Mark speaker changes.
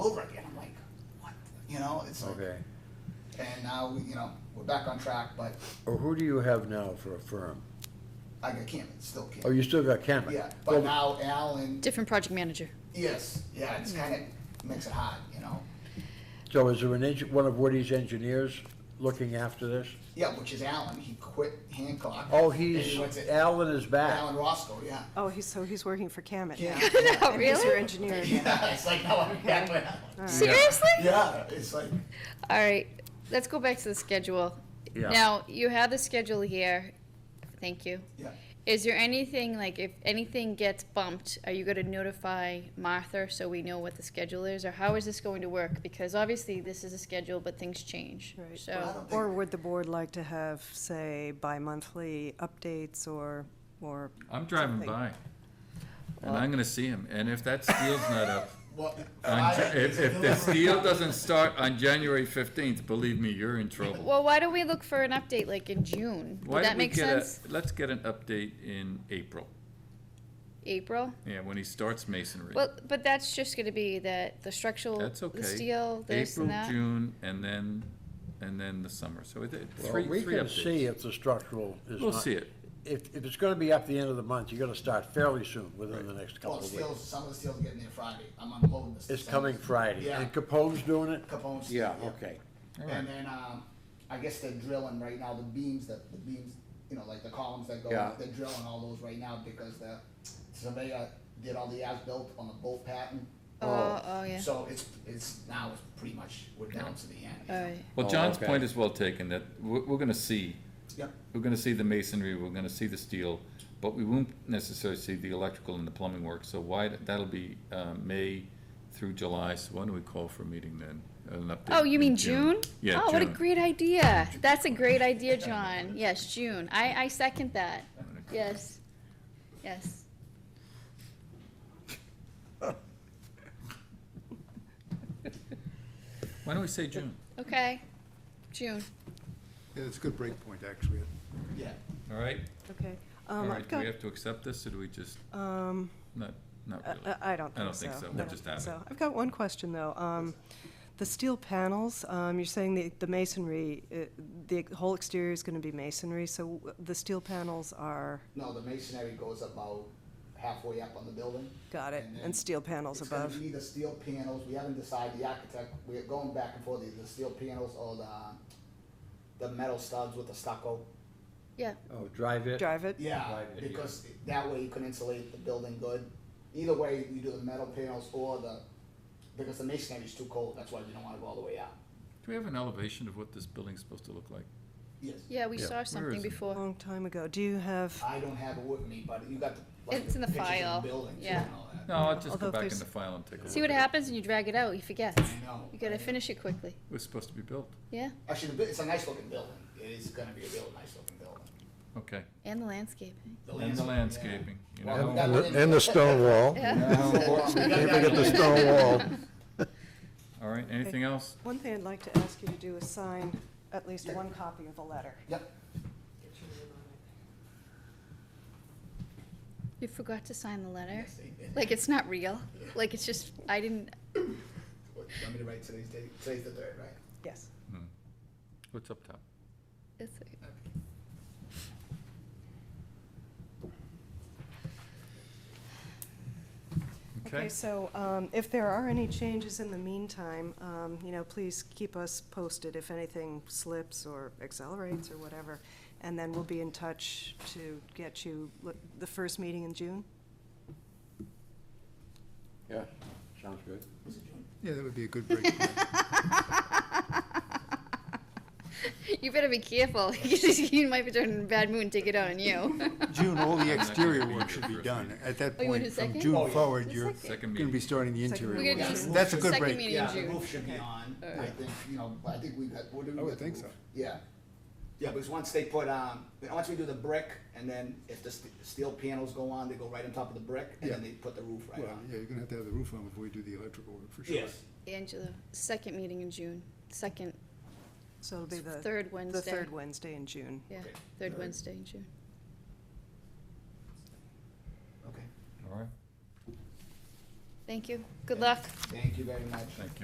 Speaker 1: over again. I'm like, what? You know, it's like,
Speaker 2: Okay.
Speaker 1: and now, we- you know, we're back on track, but
Speaker 2: Or who do you have now for a firm?
Speaker 1: I got Cameron, still
Speaker 2: Oh,
Speaker 1: Cameron.
Speaker 2: you still got Cameron?
Speaker 1: Yeah,
Speaker 2: Well,
Speaker 1: but now Alan,
Speaker 3: Different project manager.
Speaker 1: yes, yeah, it's kind of makes it hard, you know?
Speaker 2: So is there an engin, one of Woody's engineers looking after this?
Speaker 1: Yeah, which is Alan, he quit Hancock.
Speaker 2: Oh,
Speaker 1: and
Speaker 2: he's,
Speaker 1: he went to
Speaker 2: Alan is
Speaker 1: Alan
Speaker 2: back.
Speaker 1: Roscoe, yeah.
Speaker 4: Oh, he's, so he's working for Camet now.
Speaker 1: Yeah, yeah.
Speaker 3: Oh,
Speaker 4: And he's your
Speaker 3: really?
Speaker 4: engineer again.
Speaker 1: Yeah, it's like, now I'm back with Alan.
Speaker 3: Seriously?
Speaker 1: Yeah, it's like,
Speaker 3: All right, let's go back to the schedule.
Speaker 2: Yeah.
Speaker 3: Now, you have the schedule here. Thank you.
Speaker 1: yeah.
Speaker 3: Is there anything, like, if anything gets bumped, are you gonna notify Martha so we know what the schedule is? Or how is this going to work? Because obviously, this is a schedule, but things change,
Speaker 4: Right.
Speaker 1: Well, I
Speaker 3: so.
Speaker 1: don't
Speaker 4: Or
Speaker 1: think-
Speaker 4: would the board like to have, say, bi-monthly updates or, or?
Speaker 5: I'm driving
Speaker 4: something?
Speaker 5: by, and I'm gonna see him, and if that steel's not up,
Speaker 1: Well,
Speaker 5: on Ja-
Speaker 1: I-
Speaker 5: if, if the steel doesn't start on January fifteenth, believe me, you're in trouble.
Speaker 3: Well, why don't we look for an update, like, in June?
Speaker 5: Why
Speaker 3: Would that
Speaker 5: don't we
Speaker 3: make
Speaker 5: get a-
Speaker 3: sense?
Speaker 5: Let's get an update in April,
Speaker 3: April?
Speaker 5: yeah, when he starts masonry.
Speaker 3: Well, but that's just gonna be that, the structural,
Speaker 5: That's okay.
Speaker 3: the steel, this and that.
Speaker 5: April, June, and then, and then the summer, so it, it-
Speaker 2: Well,
Speaker 5: three,
Speaker 2: We
Speaker 5: three
Speaker 2: can see
Speaker 5: updates.
Speaker 2: if the structural is not.
Speaker 5: We'll see it,
Speaker 2: If, if it's gonna be up the end of the month, you're gonna start fairly soon, within the next
Speaker 1: Well,
Speaker 2: couple
Speaker 1: the
Speaker 2: of weeks.
Speaker 1: steel's, some of the steel's getting there Friday, I'm unloading this.
Speaker 2: It's coming Friday.
Speaker 1: Yeah.
Speaker 2: And Capone's doing it?
Speaker 1: Capone's.
Speaker 2: Yeah, okay.
Speaker 1: And then, um, I guess they're drilling right now, the beams, that the beams, you know, like the columns that go,
Speaker 2: Yeah.
Speaker 1: they're drilling all those right now because the surveyor did all the as-built on the bolt pattern.
Speaker 3: Oh, oh, yeah.
Speaker 1: So it's, it's, now it's pretty much, we're down to the end. you know?
Speaker 3: All right.
Speaker 5: well,
Speaker 2: Oh,
Speaker 5: John's
Speaker 2: okay.
Speaker 5: point is well taken, that we're, we're gonna see,
Speaker 1: Yep,
Speaker 5: we're gonna see the masonry, we're gonna see the steel, but we won't necessarily see the electrical and the plumbing work, so why, that'll be, uh, May through July, so why don't we call for a meeting then? an update
Speaker 3: Oh, you
Speaker 5: in
Speaker 3: mean June?
Speaker 5: Yeah,
Speaker 3: Oh, what a
Speaker 5: June.
Speaker 3: great idea. That's a great idea, John. Yes, June. I, I second that. Yes. Yes.
Speaker 5: Why don't we say June?
Speaker 3: Okay. June.
Speaker 6: Yeah, it's a good break point, actually.
Speaker 1: yeah.
Speaker 5: All right,
Speaker 4: Okay.
Speaker 5: all
Speaker 4: Um,
Speaker 5: right,
Speaker 4: I've
Speaker 5: do we
Speaker 4: got,
Speaker 5: have to accept this, or do we just,
Speaker 4: um, uh,
Speaker 5: not, not
Speaker 4: I-
Speaker 5: really?
Speaker 4: I I don't
Speaker 5: I don't
Speaker 4: think so.
Speaker 5: think so. We'll
Speaker 4: I don't
Speaker 5: just
Speaker 4: think
Speaker 5: have it.
Speaker 4: so. I've got one question, though. Um, The steel panels, um, you're saying the the masonry, uh, the whole exterior is going to be masonry, so w- the steel panels are,
Speaker 1: No, the masonry goes about halfway up on the building.
Speaker 4: got it,
Speaker 1: then
Speaker 4: and steel panels
Speaker 1: It's gonna
Speaker 4: above.
Speaker 1: be either steel panels, we haven't decided, the architect, we're going back and forth, either steel panels or the, the metal studs with the stucco.
Speaker 3: Yeah.
Speaker 2: Oh, drive it?
Speaker 4: Drive it?
Speaker 1: Yeah,
Speaker 2: Right, yeah.
Speaker 1: because that way you can insulate the building good. Either way, you do the metal panels or the, because the masonry is too cold, that's why you don't wanna go all the way out.
Speaker 5: Do we have an elevation of what this building's supposed to look like?
Speaker 1: Yes,
Speaker 3: Yeah, we
Speaker 2: Yeah.
Speaker 3: saw
Speaker 5: is
Speaker 3: something
Speaker 5: it?
Speaker 4: A
Speaker 1: Oh.
Speaker 3: before.
Speaker 4: long time ago. Do you have,
Speaker 1: I don't have it with me, but you got the, like,
Speaker 3: It's
Speaker 1: the
Speaker 3: in the
Speaker 1: pictures
Speaker 3: file,
Speaker 1: of the buildings
Speaker 3: yeah.
Speaker 1: and all that.
Speaker 5: No, I'll just
Speaker 4: Uh, Although
Speaker 5: go
Speaker 4: if
Speaker 5: back in
Speaker 4: there's-
Speaker 5: the file and take a look.
Speaker 3: See what
Speaker 5: at it.
Speaker 3: happens when you drag it out. You forget.
Speaker 1: I know.
Speaker 3: You gotta
Speaker 1: I know.
Speaker 3: finish it quickly.
Speaker 5: It was supposed to be built,
Speaker 3: Yeah.
Speaker 1: Actually, the bu- it's a nice looking building, it is gonna be a real nice looking building.
Speaker 5: okay.
Speaker 3: And the landscaping.
Speaker 5: And the
Speaker 1: yeah.
Speaker 5: landscaping, you
Speaker 1: Well,
Speaker 5: know,
Speaker 1: that-
Speaker 5: how-
Speaker 6: And the stone wall.
Speaker 3: Yeah.
Speaker 6: Can't forget the stone wall.
Speaker 5: all right, anything else?
Speaker 4: one thing I'd like to ask you to do is sign at least
Speaker 1: Yeah.
Speaker 4: one copy of the letter.
Speaker 1: Yep,
Speaker 3: You forgot to sign the letter.
Speaker 1: Yes, I did.
Speaker 3: Like, it's not real. Like, it's just, I didn't,
Speaker 1: What, you want me to write today's date? Today's the third, right?
Speaker 4: Yes.
Speaker 5: What's up top?
Speaker 3: it's,
Speaker 4: Okay, so um, if there are any changes in the meantime, um, you know, please keep us posted if anything slips or accelerates or whatever. And then we'll be in touch to get you look, the first meeting in June.
Speaker 2: Yeah, sounds good.
Speaker 6: Yeah, that would be a good break point.
Speaker 3: you better be careful. you might be turning a bad mood and take it out on you.
Speaker 6: June, all the
Speaker 5: Not
Speaker 6: exterior
Speaker 5: gonna
Speaker 6: work
Speaker 5: be
Speaker 6: should be
Speaker 5: your first
Speaker 6: done. At that
Speaker 3: Oh, you want
Speaker 6: point,
Speaker 3: a
Speaker 6: from
Speaker 3: second?
Speaker 1: Oh,
Speaker 6: June
Speaker 1: yeah.
Speaker 6: forward, you're
Speaker 5: Second
Speaker 6: gonna be
Speaker 5: meeting,
Speaker 6: starting the
Speaker 4: Second
Speaker 6: interior
Speaker 3: We're
Speaker 6: work.
Speaker 3: gonna do
Speaker 1: Yeah.
Speaker 6: That's a good
Speaker 3: second
Speaker 6: break.
Speaker 3: meeting in
Speaker 1: Yeah, the
Speaker 3: June.
Speaker 1: roof should be on, I think, you know, I think we got, what do we
Speaker 6: I
Speaker 1: got?
Speaker 6: would
Speaker 1: the
Speaker 6: think
Speaker 1: roof?
Speaker 6: so.
Speaker 1: Yeah, yeah, because once they put, um, once we do the brick, and then if the st- steel panels go on, they go right on top of the brick, and then
Speaker 6: Yeah.
Speaker 1: they put the roof right
Speaker 6: Well,
Speaker 1: on.
Speaker 6: yeah, you're gonna have to have the roof on before you do the electrical work, for sure.
Speaker 1: Yes,
Speaker 3: Angela, second meeting in June, second,
Speaker 4: So it'll be the.
Speaker 3: third Wednesday.
Speaker 4: The third Wednesday in June.
Speaker 3: Yeah,
Speaker 1: Okay.
Speaker 3: third
Speaker 1: Alright.
Speaker 3: Wednesday in June.
Speaker 1: okay.
Speaker 5: all right?
Speaker 7: Thank you. Good luck.
Speaker 3: Thank you very much.
Speaker 1: Thank you.